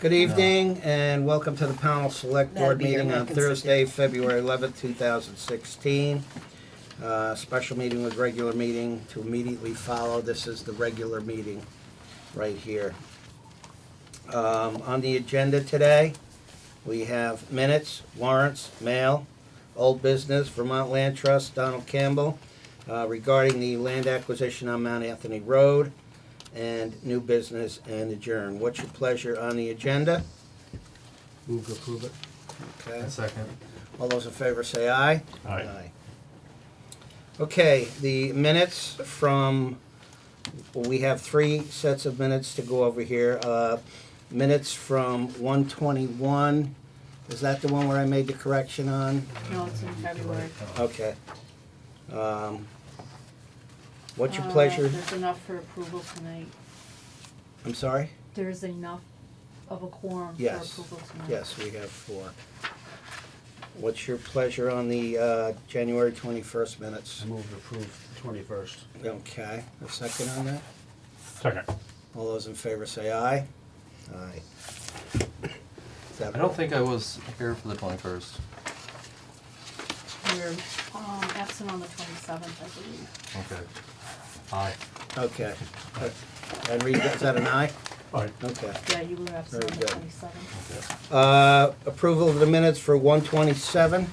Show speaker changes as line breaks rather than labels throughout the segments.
Good evening and welcome to the panel select
That'd
board
be your
meeting on
American
Thursday, February 11th, 2016. Uh, Special meeting with regular meeting to immediately follow. This is the regular meeting right here. Um, On the agenda today, we have minutes, warrants, mail, old business, Vermont Land Trust, Donald Campbell uh, regarding the land acquisition on Mount Anthony Road and new business and adjourn. What's your pleasure on the agenda?
Move to approve it.
Okay.
Second.
All those in favor say aye.
Aye.
Okay, the minutes from, we have three sets of minutes to go over here. Uh, Minutes from 121, is that the one where I made the correction on?
No, it's in February.
Okay. Um, What's your
Uh,
pleasure?
There's enough for approval tonight.
I'm sorry?
There's enough of a quorum for
Yes.
approval tonight.
Yes, we have four. What's your pleasure on the uh, January 21st minutes?
Move to approve twenty-first.
Okay, a second on that?
Second.
All those in favor say aye. Aye. Is that-
I don't think I was here for the twenty-first.
We're, um, absent on the twenty-seventh, I believe.
Okay. Aye.
Okay. And read, is that an aye?
Aye.
Okay.
Yeah, you were absent on
Very
the
good.
twenty-seventh.
Uh, Approval of the minutes for 127.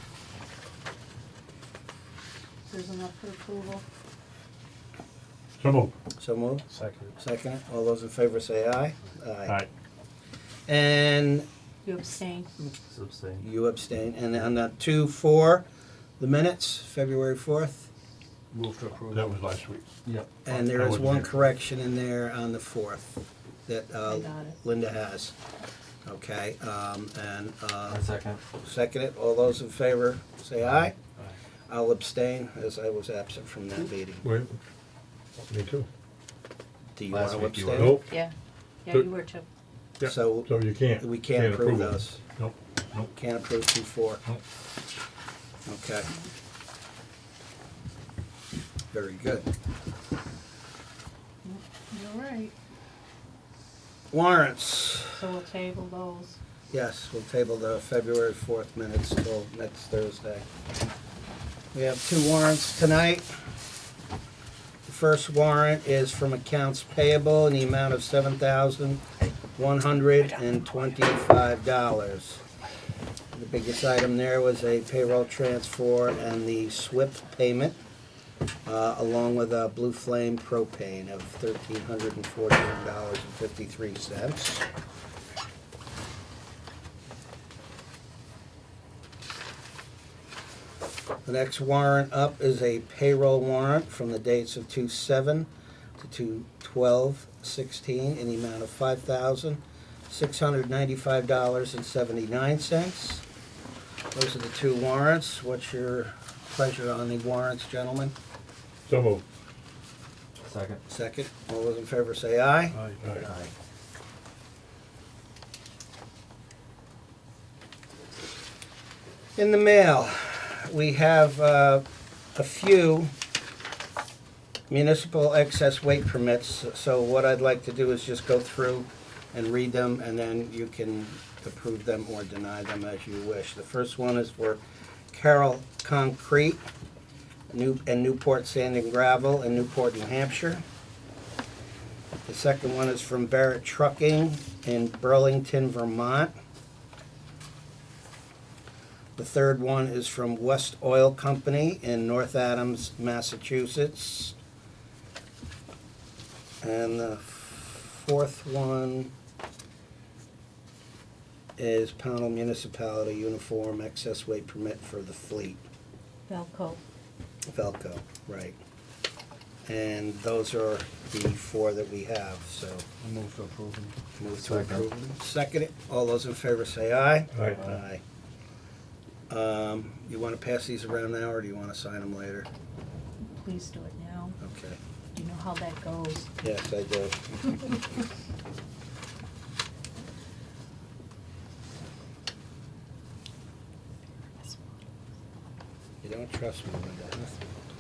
There's enough for approval.
So moved.
So moved.
Second.
Second. All those in favor say aye.
Aye.
And
You abstained.
Mm.
Substain.
you abstain. And on the 2-4, the minutes, February 4th.
Move to approve.
That was last week.
Yep.
And there
I
is
wasn't
one
here.
correction in there on the 4th that uh,
I got it.
Linda has. Okay, um, and uh,
I second.
Second it, all those in favor, say aye. I'll abstain, as I was absent from that meeting.
Wait, me too.
Do you want
Last
to
week you were-
abstain?
Nope,
Yeah. Yeah,
But-
you were too.
yeah,
So
so you can't.
we can't approve
it.
those.
Nope,
Can't approve two four.
Nope.
Okay. Very good.
You're right.
Warrants,
So we'll table those.
yes, we'll table the February fourth minutes till next Thursday. We have two warrants tonight. The first warrant is from accounts payable in the amount of seven thousand one hundred and twenty-five dollars. The biggest item there was a payroll transfer and the SWIP payment, uh, along with a Blue Flame propane of thirteen hundred and forty-one dollars and fifty-three cents. The next warrant up is a payroll warrant from the dates of two seven to two twelve sixteen in the amount of five thousand six hundred ninety-five dollars and seventy-nine cents. Those are the two warrants. What's your pleasure on the warrants, gentlemen?
so moved.
Second.
Second, all those in favor say aye.
Aye.
Aye.
In the mail, we have uh, a few municipal excess weight permits. So what I'd like to do is just go through and read them, and then you can approve them or deny them as you wish. The first one is for Carroll Concrete, New and Newport Sand and Gravel in Newport, New Hampshire. The second one is from Barrett Trucking in Burlington, Vermont. The third one is from West Oil Company in North Adams, Massachusetts. And the fourth one is Pownell Municipality Uniform Excess Weight Permit for the Fleet,
Velco.
Velco, right. And those are the four that we have, so.
Move to approve.
Move to
Second.
approve. Second it. All those in favor say aye.
Aye.
Aye. Um, You want to pass these around now, or do you want to sign them later?
Please do it now.
Okay.
You know how that goes.
Yes, I do. You don't trust me, Linda, huh?